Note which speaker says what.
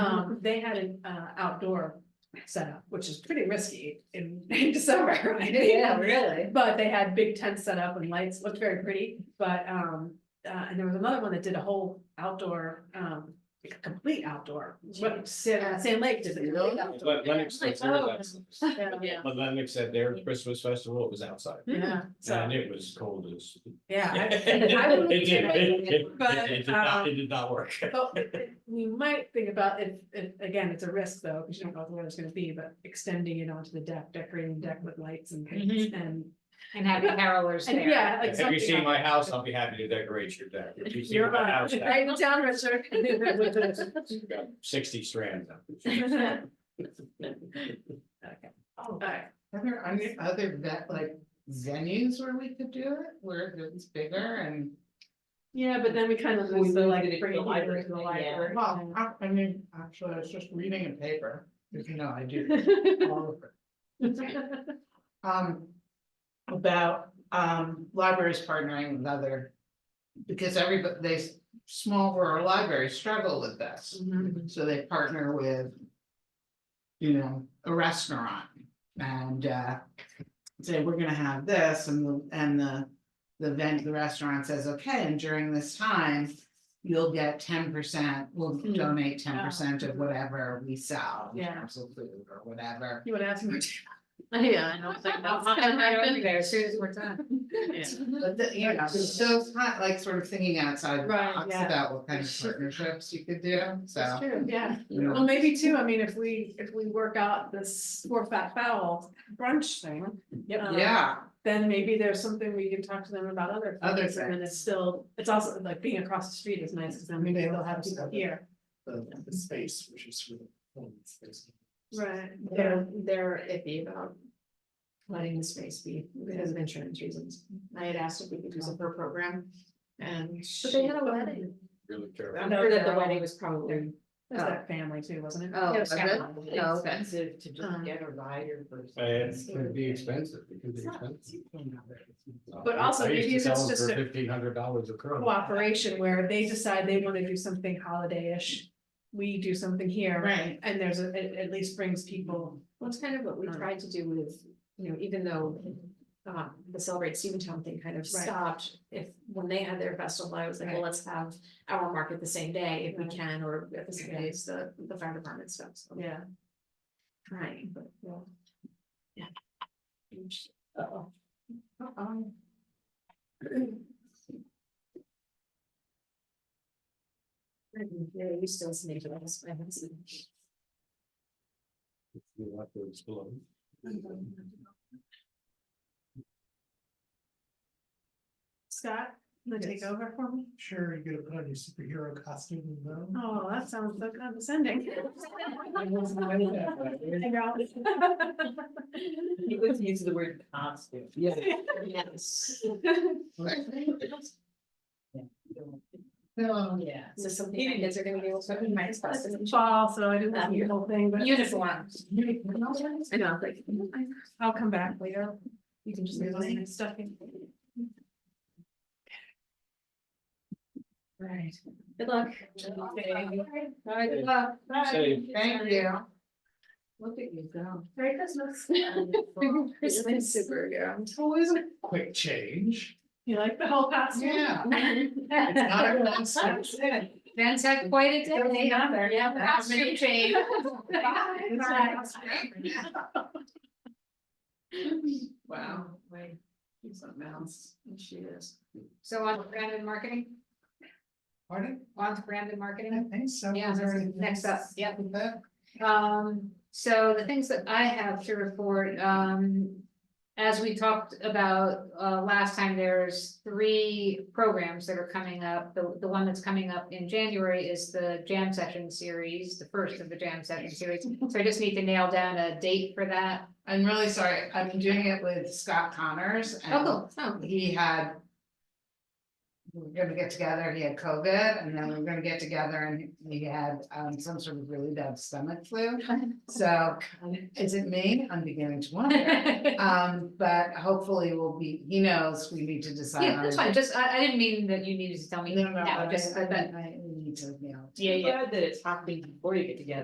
Speaker 1: Um, they had an uh outdoor setup, which is pretty risky in in December, right?
Speaker 2: Yeah, really.
Speaker 1: But they had big tents set up and lights, looked very pretty, but um, uh, and there was another one that did a whole outdoor, um, like a complete outdoor. What, Sa- Sand Lake did it.
Speaker 2: Really?
Speaker 3: But Lennox
Speaker 2: Like,
Speaker 3: was there
Speaker 2: oh.
Speaker 3: last-
Speaker 2: Yeah.
Speaker 3: but Lennox said their Christmas festival, it was outside,
Speaker 4: hmm."
Speaker 1: Yeah, Hmm. so,
Speaker 3: and it was cold as.
Speaker 1: yeah. I- I
Speaker 3: It
Speaker 1: would-
Speaker 3: did, it- it-
Speaker 1: But,
Speaker 3: it did not,
Speaker 1: um,
Speaker 3: it did not work.
Speaker 1: But we might think about if, if, again, it's a risk though, because you don't know what the weather's gonna be, but extending it onto the deck, decorating the deck with lights and things and.
Speaker 2: And having carolers
Speaker 1: And
Speaker 2: there.
Speaker 1: yeah, like
Speaker 3: If you see
Speaker 1: something
Speaker 3: my house, I'll be happy to decorate your deck. If you see
Speaker 1: You're
Speaker 3: my
Speaker 1: right.
Speaker 3: house, I've
Speaker 1: Right down, Richard.
Speaker 3: got sixty strands. up.
Speaker 1: All right.
Speaker 5: Are there any other vet, like venues where we could do it, where it's bigger and?
Speaker 1: Yeah, but then we kind of lose the like bringing library to the library.
Speaker 5: Well, I, I mean, actually, I was just reading a paper, if you know, I do. all of it. Um, about, um, libraries partnering with other. Because everybody, they, s- small rural libraries struggle with this.
Speaker 1: Mhm.
Speaker 5: So they partner with. You know, a restaurant and uh. Say, we're gonna have this and the, and the. The vent, the restaurant says, okay, and during this time. You'll get ten percent, we'll
Speaker 1: Hmm.
Speaker 5: donate ten percent of whatever we sell. in
Speaker 1: Yeah.
Speaker 5: terms of Food or whatever.
Speaker 1: You would ask me.
Speaker 4: Yeah, I don't think that's gonna happen.
Speaker 2: There, as soon as we're done.
Speaker 6: Hmm.
Speaker 5: But the, you know, so it's not like sort of thinking outside the
Speaker 1: Right,
Speaker 5: box
Speaker 1: yeah.
Speaker 5: about what kind of partnerships you could do,
Speaker 1: That's
Speaker 5: so.
Speaker 1: true, yeah.
Speaker 5: you know.
Speaker 1: Well, maybe too, I mean, if we, if we work out this four fat fowl brunch thing.
Speaker 6: Oh,
Speaker 1: um,
Speaker 5: Yeah,
Speaker 1: Then maybe there's something we can talk to them about other.
Speaker 5: Other
Speaker 1: things, And then it's still, it's also like being across the street is nice, because then we
Speaker 6: Maybe
Speaker 1: will
Speaker 6: they'll
Speaker 1: have
Speaker 6: have
Speaker 1: people
Speaker 6: seven.
Speaker 1: here.
Speaker 6: the, the space, which is for the. open space.
Speaker 1: Right.
Speaker 4: They're, they're iffy about letting the space be because of insurance reasons. I had asked if we could use it for a program and.
Speaker 2: But they had a wedding.
Speaker 3: Really terrible.
Speaker 2: I'm sure that the wedding was probably.
Speaker 1: There's that family too, wasn't it?
Speaker 2: Yeah,
Speaker 4: Oh,
Speaker 2: it was
Speaker 4: okay.
Speaker 2: kind of-
Speaker 4: Oh, okay.
Speaker 6: Expensive to
Speaker 1: Uh-huh.
Speaker 6: just get a rider versus.
Speaker 3: And It would be expensive, it could be
Speaker 6: It's not
Speaker 3: expensive.
Speaker 6: cheap on that.
Speaker 1: But also, maybe it's just a-
Speaker 3: Fifteen hundred dollars a crow.
Speaker 1: Cooperation where they decide they want to do something holiday-ish, we do something here.
Speaker 5: right.
Speaker 1: And there's a, it at least brings people,
Speaker 4: Well, it's kind of what we
Speaker 1: Mm.
Speaker 4: tried to do with, you know, even though uh, the Celebrate Steventown thing kind of stopped. If, when they had their festival, I was like, well,
Speaker 1: Right.
Speaker 4: let's have our market the same day if we
Speaker 1: Right.
Speaker 4: can, or at the same
Speaker 1: Yeah.
Speaker 4: day as the, the fire department stuff, so.
Speaker 1: yeah.
Speaker 4: Trying, but, yeah. Yeah.
Speaker 1: Uh-oh.
Speaker 4: Uh-oh. Yeah, you still sneak it, I haven't seen. it.
Speaker 3: You have to explode.
Speaker 1: Scott, you wanna take
Speaker 6: Yes.
Speaker 1: over for me?
Speaker 6: Sure, you're gonna put on your superhero costume and go.
Speaker 1: Oh, that sounds so condescending.
Speaker 6: He was using the word costume. Yeah.
Speaker 4: Yes.
Speaker 6: No,
Speaker 2: Yeah.
Speaker 4: So some kids are gonna be able to, my husband.
Speaker 1: Fall, so I didn't have the whole thing, but.
Speaker 2: Uniform.
Speaker 4: I know, like.
Speaker 1: I'll come back later.
Speaker 4: You can just.
Speaker 1: Just leave all my stuff in.
Speaker 4: Right. Good luck.
Speaker 2: All right, well,
Speaker 3: Say,
Speaker 5: Thank you.
Speaker 2: look at you go.
Speaker 4: Merry Christmas. Christmas super, yeah.
Speaker 6: quick change.
Speaker 1: You like the whole costume?
Speaker 5: Yeah.
Speaker 6: Not everyone's such-
Speaker 2: Dan's had quite a
Speaker 4: Doesn't
Speaker 2: day.
Speaker 4: matter.
Speaker 2: Yeah, costume change.
Speaker 4: Bye.
Speaker 5: Wow.
Speaker 4: Wait, she's something else, and she is.
Speaker 2: So on to brand and marketing,
Speaker 6: Pardon?
Speaker 2: on to brand and
Speaker 6: I
Speaker 2: marketing.
Speaker 6: think so.
Speaker 2: Yeah,
Speaker 6: Is there anything
Speaker 2: next up,
Speaker 6: else
Speaker 2: yep.
Speaker 6: with that?
Speaker 2: Um, so the things that I have to report, um. As we talked about, uh, last time, there's three programs that are coming up. The, the one that's coming up in January is the jam session series, the first of the jam session series. So I just need to nail down a date for that.
Speaker 5: I'm really sorry. I've been doing it with Scott Connors and
Speaker 2: Oh, cool. Oh,
Speaker 5: he had. We were gonna get together, he had COVID and then we were gonna get together and he had um some sort of really bad stomach flu. So is it me? I'm beginning to wonder. Um, but hopefully we'll be, he knows we need to decide.
Speaker 2: Yeah,
Speaker 5: on
Speaker 2: that's
Speaker 5: a
Speaker 2: fine. Just, I, I didn't mean that you needed to tell me
Speaker 5: Oh. No, no,
Speaker 2: now,
Speaker 5: I
Speaker 2: just,
Speaker 5: just, I
Speaker 2: but,
Speaker 5: I need to, you know.
Speaker 2: yeah, yeah.
Speaker 6: Glad that it's happening before you get together.